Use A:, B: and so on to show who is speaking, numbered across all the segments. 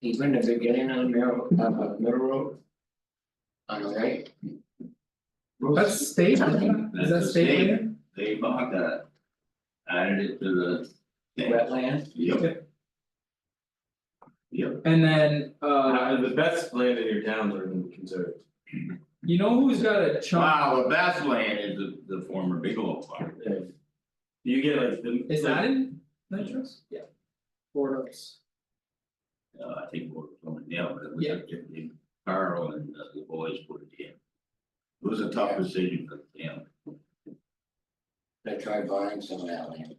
A: even the beginning on Middle, uh, Middle Road? On the right?
B: That's state, isn't it? is that
C: That's
B: state
C: state.
B: land?
C: They bought that. Added it to the. thing.
A: Wetland,
C: Yep, yep,
B: And then, uh,
D: Uh, the best land in your towns are conserved.
B: you know who's got a chunk,
C: wow, the best land is the the former Bigelow Farm,
D: If You get like the.
B: is that in Nitro's? Yeah. Four Oaks.
C: uh, I think we're going down, but it was
B: Yeah.
C: up to the Carl and uh, the boys put it in. It was a tough decision for them,
A: they tried buying some of that land.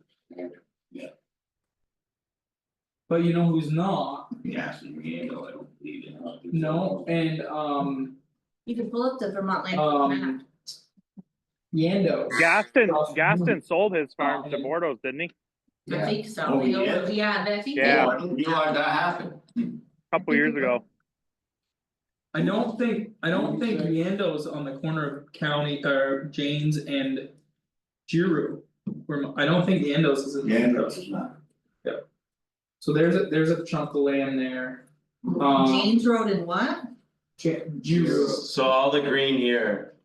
B: But you know who's not,
C: gas and handle, I don't believe in.
B: no, and um
E: You can pull up the Vermont land Court map.
B: um. Yando.
F: Gaston,
B: Awesome.
F: Gaston sold his farm to
B: Um,
F: Bordeaux, didn't he?
E: I
A: Yeah.
E: think so,
C: Oh,
E: we
C: he
E: over,
C: is?
E: yeah, but I think. they
C: Yeah,
F: Yeah.
C: I didn't realize that happened.
F: A Couple
E: think
F: years
E: he
F: ago.
B: I don't think, I don't think Yando's on the corner of County or Jane's and. Giroux, where my- I don't think Yando's is in. Nitro's.
C: not.
B: So there's a, there's a chunk of land there, um,
E: James Road and what?
B: Ja- Giroux.
D: So all the green here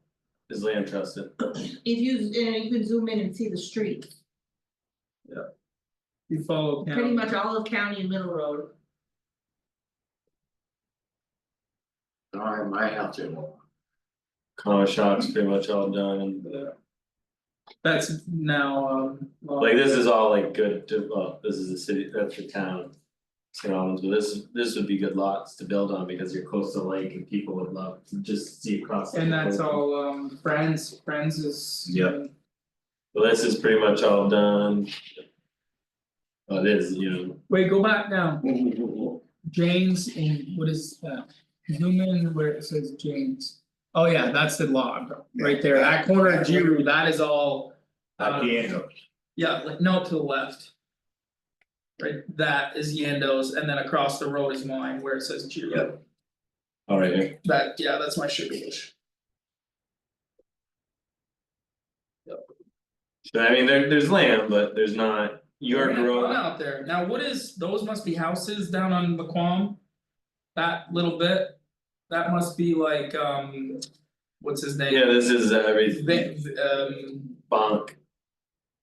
D: is land trusted.
E: If you, and you can zoom in and see the streets,
B: you follow county.
E: pretty much all of County and Middle Road.
A: Sorry, my house is.
D: Color shots pretty much all done and
B: Yeah. That's now, um. well,
D: like this is all like good, to- well, this is the city, that's the town. St. Albans, but this this would be good lots to build on because you're close to lake and people would love to just see across. the
B: And that's
D: lake.
B: all, um, Friends, Friends is. um,
D: Yep. Well, this is pretty much all done. Well, it is, you know,
B: Wait, go back now, Jane's and what is that? Zoom in where it says Jane's. Oh yeah, that's the log, right there, that corner of Giroux, that is all, Uh,
C: I can't.
B: yeah, like no to the left. Right, that is Yando's and then across the road is mine where it says Giroux,
D: all right here.
B: that, yeah, that's my sugar dish.
D: So I mean, there there's land, but there's not your
B: One
D: growth,
B: out there, now what is, those must be houses down on Laquam? That little bit, that must be like, um, what's his name?
D: yeah, this is everything,
B: Vic, um,
D: bonk,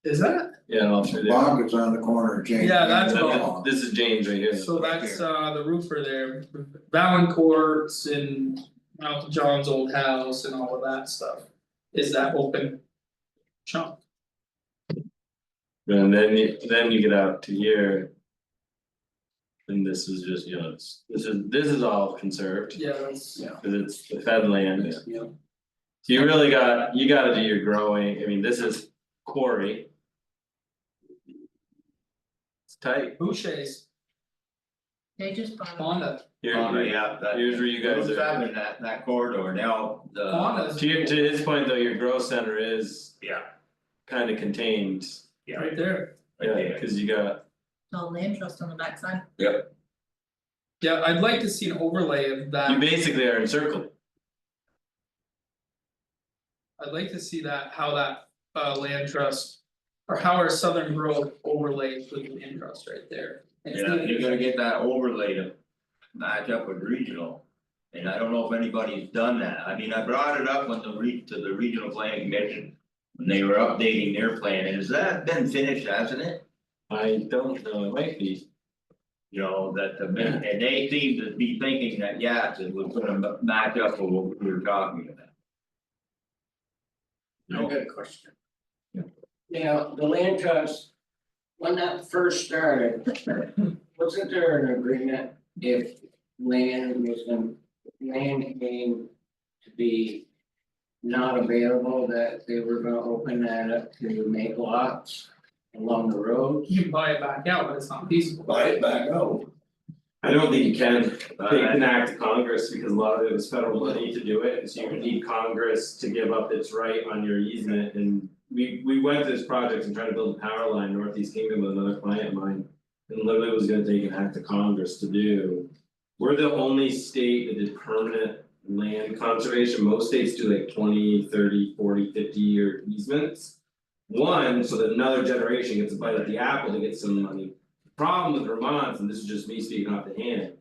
B: is that,
D: yeah, all through there.
G: Bog is on the corner of James.
B: Yeah, that's
D: And then
B: Bonk.
D: This is James right here,
B: so that's uh the roofer there, Valancourt's and Uncle John's old house and all of that stuff. Is that open chunk?
D: and then you, then you get out to here. And this is just, you know, it's, this is, this is all conserved,
B: Yeah, that's,
D: cause it's the fed land.
A: Yeah.
D: So you really got, you gotta do your growing, I mean, this is quarry. It's tight,
B: Boucher's,
E: They just bought.
B: Fonda,
D: here, right,
C: yeah, that.
D: here's where you guys
C: What's
D: are.
C: happening in that that corridor now, the.
B: Fonda's
D: to your, to his point though, your growth center is.
C: Yeah.
D: Kinda contained,
C: Yeah,
B: right there.
C: right there.
D: yeah, cause you got,
E: all land trust on the backside.
B: Yeah, I'd like to see an overlay of that.
D: you basically are encircled,
B: I'd like to see that, how that uh land trust. Or how our southern grove overlays with the land trust right there. And it's
C: Yeah,
B: not-
C: you're gonna get that overlay to match up with regional. And I don't know if anybody's done that, I mean, I brought it up when the re, to the regional planning commission. When they were updating their plan, and has that been finished, hasn't it?
D: I don't know, it might be,
C: You know, that the, min- and they seem to be thinking that, yes, it was gonna ma- match up with what we were talking about.
A: I got a question. Now, the land trust, when that first started, wasn't there an agreement if land was, gonna- land came to be not available, that they were gonna open that up to make lots along the road?
B: You can buy it back out, but it's not feasible.
G: back out.
D: I don't think you can.
C: Uh,
D: They can act to Congress because a lot of it was federal money to do it, and so you would need Congress to give up its right on your easement and. We we went to this project and tried to build a power line northeast kingdom with another client of mine, and literally was gonna take an act of Congress to do. We're the only state that did permanent land conservation, most states do like 20, 30, 40, 50 year easements. One, so that another generation gets a bite at the apple to get some money. The Problem with Vermont, and this is just me speaking off the hand,